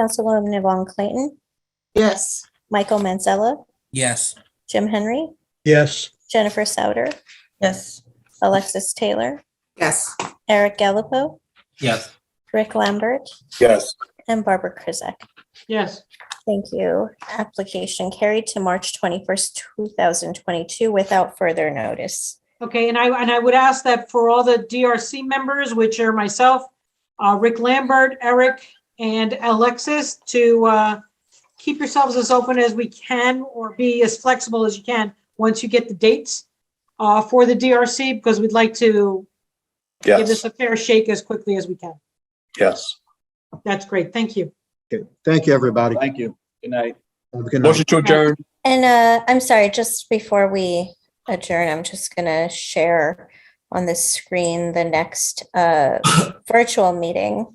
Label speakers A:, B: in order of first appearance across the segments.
A: Councilwoman Yvonne Clayton,
B: Yes.
A: Michael Manzella,
C: Yes.
A: Jim Henry,
D: yes,
A: Jennifer Souter,
E: yes,
A: Alexis Taylor,
B: Yes.
A: Eric Gallopo,
C: Yes.
A: Rick Lambert,
F: yes,
A: and Barbara Krizak.
E: yes,
A: Thank you. Application carried to March twenty-first, two thousand twenty-two without further notice.
E: okay, and I, and I would ask that for all the DRC members, which are myself, uh, Rick Lambert, Eric, and Alexis, to, uh, keep yourselves as open as we can, or be as flexible as you can, once you get the dates, uh, for the DRC, because we'd like to give
F: yes,
E: this a fair shake as quickly as we can.
F: yes.
E: That's great, thank you.
D: okay, thank you, everybody.
G: Thank you. Good night.
D: Have a good night.
F: Motion to adjourn.
A: And uh, I'm sorry, just before we adjourn, I'm just gonna share on the screen the next uh, virtual meeting.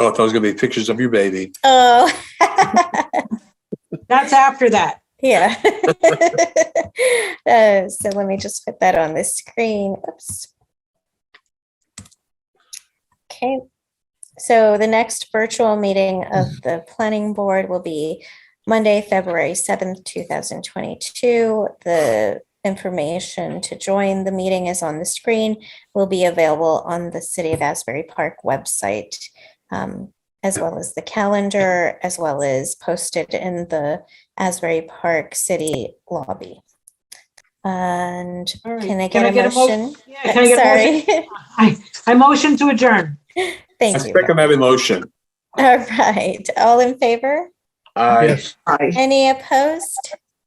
F: Oh, I thought it was gonna be pictures of your baby.
A: Oh,
E: That's after that.
A: yeah. Uh, So let me just put that on the screen. Oops. Okay, so the next virtual meeting of
E: Mm-hmm.
A: the planning board will be Monday, February seventh, two thousand twenty-two. The information to join the meeting is on the screen, will be available on the City of Asbury Park website, um, as well as the calendar, as well as posted in the Asbury Park City lobby. And
E: All right.
A: can I get a
E: mo-
A: motion?
E: Yeah, can I get a motion?
A: Sorry.
E: I, I motion to adjourn.
F: I
A: Thank you.
F: second that motion.
A: All right, all in favor?
F: Aye.
D: Yes.
B: Aye.
A: Any opposed?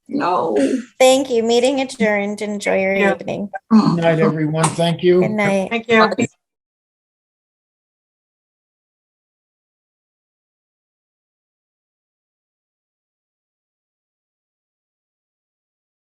B: No.
A: Thank you. Meeting adjourned. Enjoy your
E: Yeah.
A: evening.
B: Mm.
D: Good night, everyone. Thank you.
A: Good night.
E: Thank you.